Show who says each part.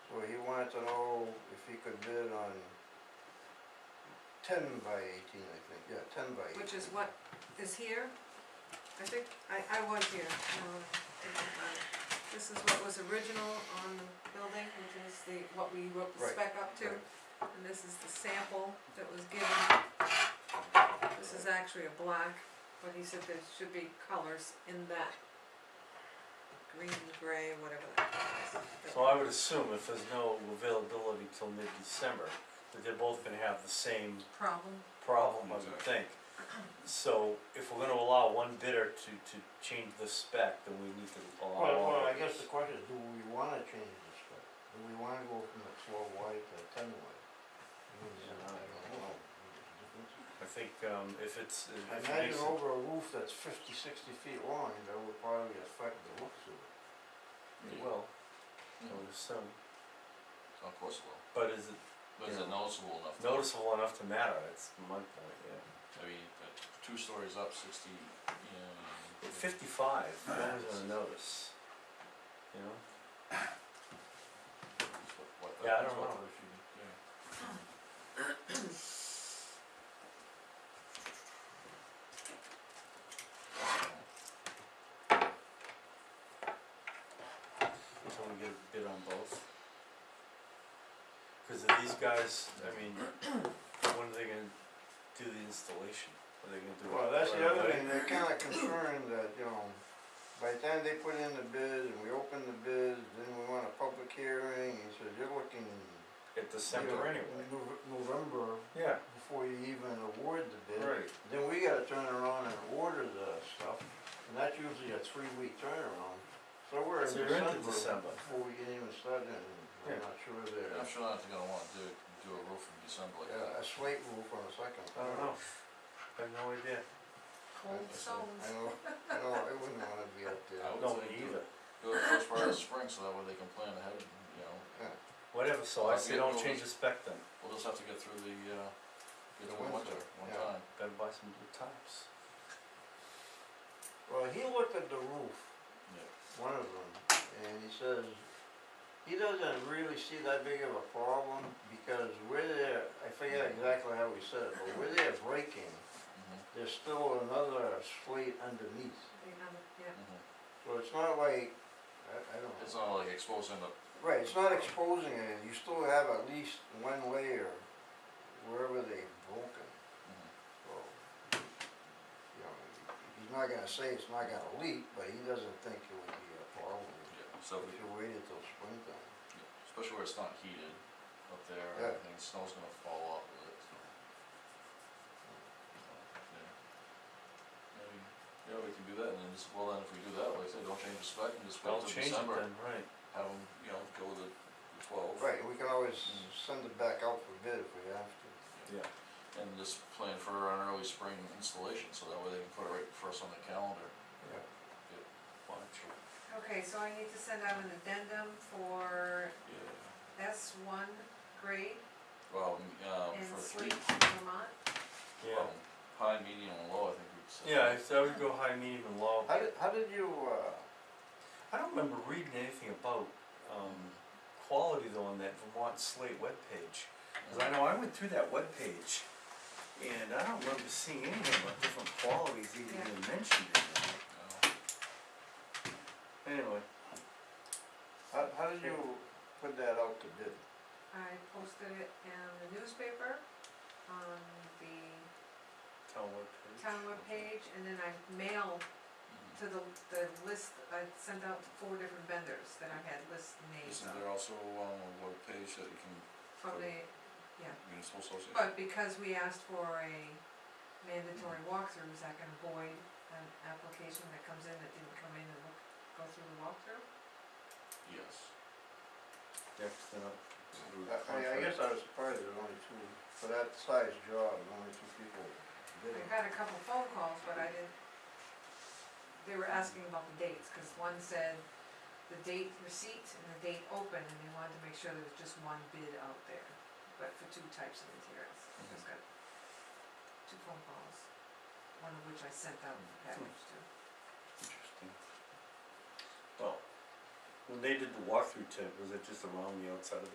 Speaker 1: wanted to know if he could bid on ten by eighteen, I think, yeah, ten by eighteen.
Speaker 2: Which is what is here, I think, I, I was here, um, this is what was original on the building, which is the, what we wrote the
Speaker 1: Right,
Speaker 2: spec up to.
Speaker 1: right.
Speaker 2: And this is the sample that was given. This is actually a black, but he said there should be colors in that green, gray, whatever that color is.
Speaker 3: So I would assume if there's no availability till mid-December, that they're both gonna have the same
Speaker 2: Problem.
Speaker 3: problem, I would think. So if we're gonna allow one bidder to, to change the spec, then we need to
Speaker 1: Well,
Speaker 3: allow all
Speaker 1: well, I
Speaker 3: bidders.
Speaker 1: guess the question is, do we wanna change the spec? Do we wanna go from the four wide to ten wide? I mean,
Speaker 3: Yeah,
Speaker 1: I don't know.
Speaker 3: I think, um, if it's,
Speaker 1: I
Speaker 3: if it makes
Speaker 1: Imagine
Speaker 3: it,
Speaker 1: over a roof that's fifty, sixty feet long, that would probably affect the looks of it.
Speaker 3: it will, I would assume,
Speaker 4: Of course it will,
Speaker 3: but is it
Speaker 4: but is it noticeable enough? to-
Speaker 3: noticeable enough to matter, it's my point, yeah.
Speaker 4: I mean, uh, two stories up, sixty, you know.
Speaker 3: Fifty-five, no one's gonna notice, you know?
Speaker 4: what- what the-
Speaker 3: Yeah, I don't
Speaker 4: what
Speaker 3: know.
Speaker 4: the- if you- yeah.
Speaker 3: Can we get a bid on both? Cause if these guys, I mean, when are they gonna do the installation? Are they gonna do it?
Speaker 1: Well, that's the
Speaker 3: right
Speaker 1: other thing,
Speaker 3: away?
Speaker 1: they're kinda concerned that, you know, by the time they put in the bid and we open the bid, then we want a public hearing, and so you're looking.
Speaker 3: At
Speaker 1: you
Speaker 3: December
Speaker 1: know,
Speaker 3: anyway.
Speaker 1: Nov- November
Speaker 3: Yeah,
Speaker 1: before you even award the bid.
Speaker 3: right.
Speaker 1: Then we gotta turn around and order the stuff, and that's usually a three-week turnaround, so we're in
Speaker 3: So you're
Speaker 1: December
Speaker 3: into December.
Speaker 1: before we can even start in,
Speaker 3: Yeah.
Speaker 1: I'm not sure there.
Speaker 4: I'm sure not gonna wanna do, do a roof in December like that.
Speaker 1: Yeah, a slate roof on a second.
Speaker 3: I don't know. I have no idea.
Speaker 2: Cold souls.
Speaker 1: I know, I know, I wouldn't wanna be up there.
Speaker 4: I would
Speaker 3: No, me
Speaker 4: say do it.
Speaker 3: either.
Speaker 4: Do it first part of spring, so that way they can plan ahead, you know,
Speaker 3: Whatever, so I
Speaker 4: Well,
Speaker 3: say
Speaker 4: get
Speaker 3: don't
Speaker 4: going.
Speaker 3: change the spec then.
Speaker 4: we'll just have to get through the, uh, get
Speaker 1: The
Speaker 4: through winter,
Speaker 1: winter,
Speaker 4: one
Speaker 1: yeah.
Speaker 4: time.
Speaker 3: Better buy some blue tops.
Speaker 1: Well, he looked at the roof,
Speaker 4: Yeah.
Speaker 1: one of them, and he says, he doesn't really see that big of a problem, because where they're, I forget exactly how he said it, but where they're breaking,
Speaker 4: Mhm,
Speaker 1: there's still another slate underneath.
Speaker 2: Yeah,
Speaker 4: mhm.
Speaker 1: So it's not like, I, I don't
Speaker 4: It's
Speaker 1: know,
Speaker 4: not like exposing the,
Speaker 1: right, it's not exposing it, you still have at least one layer wherever they've broken,
Speaker 4: mhm.
Speaker 1: so. You know, he's not gonna say it's not gonna leak, but he doesn't think it would be a problem
Speaker 4: yeah,
Speaker 1: if
Speaker 4: so we,
Speaker 1: you waited till springtime.
Speaker 4: yeah, especially where it's not heated up there,
Speaker 1: Yeah.
Speaker 4: everything, snow's gonna fall off of it, so. Yeah. Maybe, yeah, we can do that, and then, just- well, then if we do that, like I said, don't change the spec, and just wait
Speaker 3: I'll
Speaker 4: till
Speaker 3: change it then,
Speaker 4: December,
Speaker 3: right.
Speaker 4: have them, you know, go with the, the twelve.
Speaker 1: Right, we can always
Speaker 4: Mm.
Speaker 1: send it back out for bid if we have to.
Speaker 3: Yeah.
Speaker 4: And just plan for an early spring installation, so that way they can put it right first on the calendar.
Speaker 3: Watch.
Speaker 2: okay, so I need to send out an addendum for
Speaker 4: Yeah.
Speaker 2: S one grade
Speaker 4: Well, m- um,
Speaker 2: in
Speaker 4: for three,
Speaker 2: Sweet Vermont.
Speaker 3: Yeah.
Speaker 4: well, high, medium, and low, I think we'd say.
Speaker 3: Yeah, so I would go high, medium and low.
Speaker 1: How did, how did you, uh,
Speaker 3: I don't remember reading anything about, um, quality though on that Vermont Slate webpage. Cause I know I went through that webpage and I don't remember seeing anything about different qualities even
Speaker 2: Yeah.
Speaker 3: being mentioned in
Speaker 4: Uh,
Speaker 3: there. Anyway,
Speaker 1: how, how did you put that out to bid?
Speaker 2: I posted it in the newspaper, on the
Speaker 3: town webpage.
Speaker 2: town webpage, and then I mailed
Speaker 4: mhm.
Speaker 2: to the, the list, I sent out to four different vendors that I had list names
Speaker 4: Isn't
Speaker 2: of,
Speaker 4: there also um, a webpage that you can,
Speaker 2: from the,
Speaker 4: municipal association?
Speaker 2: but because we asked for a mandatory walkthrough, is that gonna void an application that comes in that didn't come in and look, go through the walkthrough?
Speaker 4: Yes.
Speaker 3: Yeah, 'cause they're not-
Speaker 1: I, I- I guess I was surprised there's only two, for that size job, only two people
Speaker 2: I
Speaker 1: bidding.
Speaker 2: got a couple phone calls, but I didn't, they were asking about the dates, cause one said the date receipt and the date open, and they wanted to make sure there was just one bid out there, but for two types of materials, I just got two phone calls, one of which I sent out the package to.
Speaker 3: Interesting. Well, when they did the walkthrough tip, was it just around the outside of the